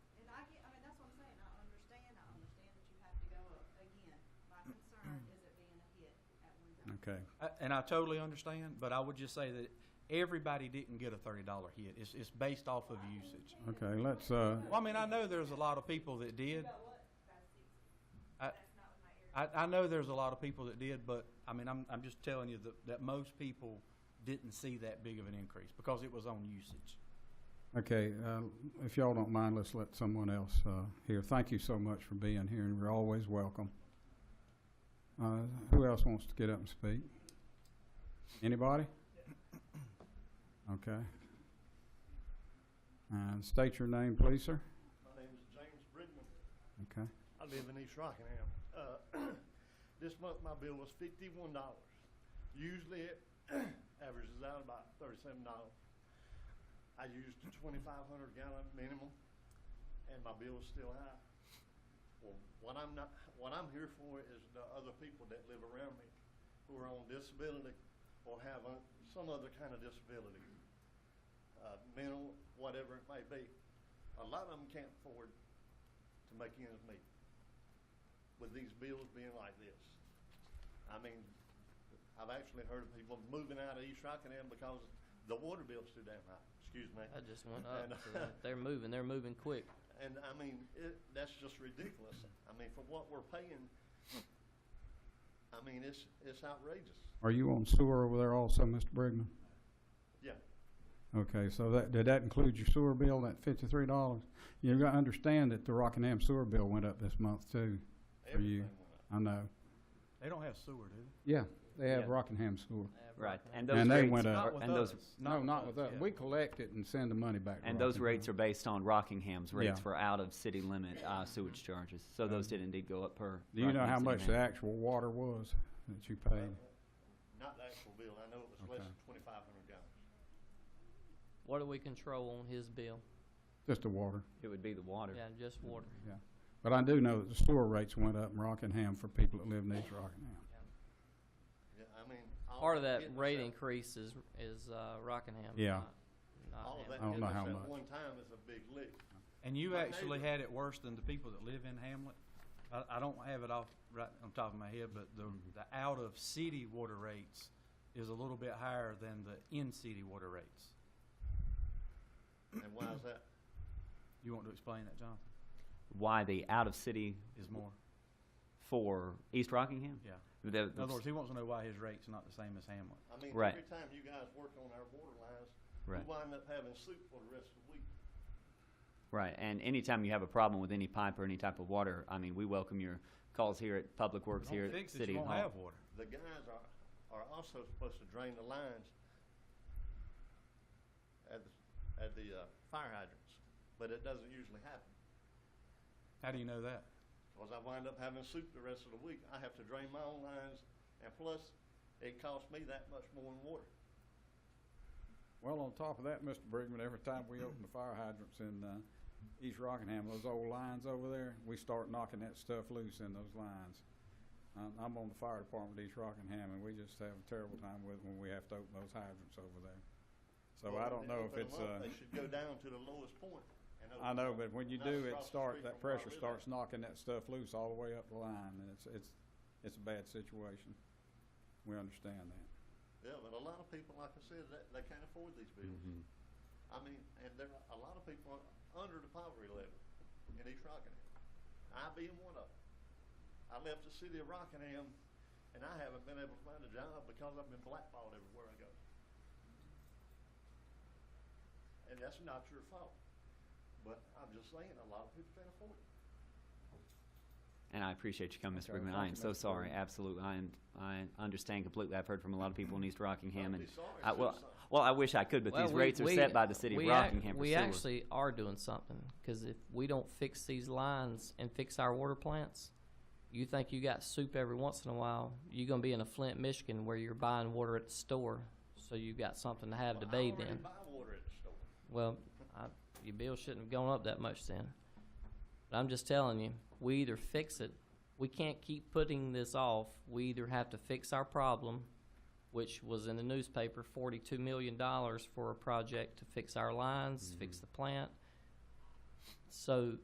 Okay, I- And I totally understand, but I would just say that everybody didn't get a thirty dollar hit. It's, it's based off of usage. okay, let's, uh, Well, I mean, I know there's a lot of people that did. I, I, I know there's a lot of people that did, but, I mean, I'm, I'm just telling you that, that most people didn't see that big of an increase because it was on usage. okay, uh, if y'all don't mind, let's let someone else, uh, hear. Thank you so much for being here, and you're always welcome. Uh, who else wants to get up and speak? Anybody? Okay. And state your name, please, sir. My name is James Bridgman. Okay, I live in East Rockingham. Uh, This month, my bill was fifty-one dollars. Usually, it averages out about thirty-seven dollars. I used a twenty-five hundred gallon minimum, and my bill is still high. Well, what I'm not, what I'm here for is the other people that live around me who are on disability or have un- some other kind of disability, uh, mental, whatever it may be. A lot of them can't afford to make ends meet with these bills being like this. I mean, I've actually heard of people moving out of East Rockingham because the water bill's too damn high, excuse me. That just went And- up. so they're moving. They're moving quick. And I mean, it, that's just ridiculous. I mean, for what we're paying, I mean, it's, it's outrageous. are you on sewer over there also, Mr. Brigman? Yeah. Okay, so that, did that include your sewer bill, that fifty-three dollars? You've got to understand that the Rockingham sewer bill went up this month too. For you. everything went up. I know. They don't have sewer, do they? Yeah, they have Yeah. Rockingham sewer. Right, and those And they rates went are- up. Not with and those us. No, not with yeah. us. We collect it and send the money back. to and those Rockingham. rates are based on Rockingham's rates Yeah. for out of city limit uh, sewage charges. So those did indeed go up per. Do you know how Rockingham much city the limit. actual water was that you paid? Not the actual bill. I know it was less Okay. than twenty-five hundred dollars. What do we control on his bill? Just the water, It would be the water. Yeah, just water. yeah. But I do know that the sewer rates went up in Rockingham for people that live in East Rockingham. Yeah, I mean. all Part of hitting that us rate at- increase is is uh, Rockingham. Yeah. not- not All of Hamlet. that I don't hitting know how us much. at one time is a big lick. And you My actually neighbor- had it worse than the people that live in Hamlet. I, I don't have it off right on top of my head, but the, Mm-hmm. the out-of-city water rates is a little bit higher than the in-city water rates. And why is that? You want to explain that, Jonathan? Why the out of city Is more, for East Rockingham? yeah. The- In other words, he wants to know why his rate's not the same as Hamlet. I mean, Right. every time you guys work on our water lines, we Right. wind up having soup for the rest of the week. Right, and anytime you have a problem with any pipe or any type of water, I mean, we welcome your calls here at Public Works here Don't at fix it, you City Hall. won't have water. The guys are, are also supposed to drain the lines at, the- at the uh, fire hydrants, but it doesn't usually happen. How do you know that? Because I wind up having soup the rest of the week. I have to drain my own lines, and plus, it costs me that much more in water. Well, on top of that, Mr. Brigman, every time we open the fire hydrants in uh, East Rockingham, those old lines over there, we start knocking that stuff loose in those lines. Um, I'm on the fire department at East Rockingham, and we just have a terrible time with when we have to open those hydrants over there. So I don't When they know if open it's, them up, uh, They should go down to the lowest point. and open I know, them but up, when you not do, it across the start, street that from where I pressure live at. starts knocking that stuff loose all the way up the line, and it's, it's, it's a bad situation. We understand that. Yeah, but a lot of people, like I said, that, they can't afford these bills. I mean, and there are a lot of people are under the poverty level in East Rockingham. I being one of them. I left the city of Rockingham and I haven't been able to find a job because I've been blackballed everywhere I go. And that's not your fault. But I'm just saying, a lot of people can't afford it. And I appreciate you coming, Mr. Okay, Brigman. thank you, I am so Mr. sorry. Brigman. Absolutely, I am. I understand completely. I've heard from a lot of people in East Rockingham, Don't be and sorry, I, well, do something. well, I wish I could, but Well, these we- rates are we- set by the city of we ac- Rockingham for We sewer. actually are doing something because if we don't fix these lines and fix our water plants, you think you got soup every once in a while, you're gonna be in a Flint, Michigan, where you're buying water at the store, so you got something to have to Well, bathe I already in. buy water at the store. Well, I, your bill shouldn't have gone up that much then. But I'm just telling you, we either fix it, we can't keep putting this off. We either have to fix our problem, which was in the newspaper, forty-two million dollars for a project to fix our lines, fix the plant. So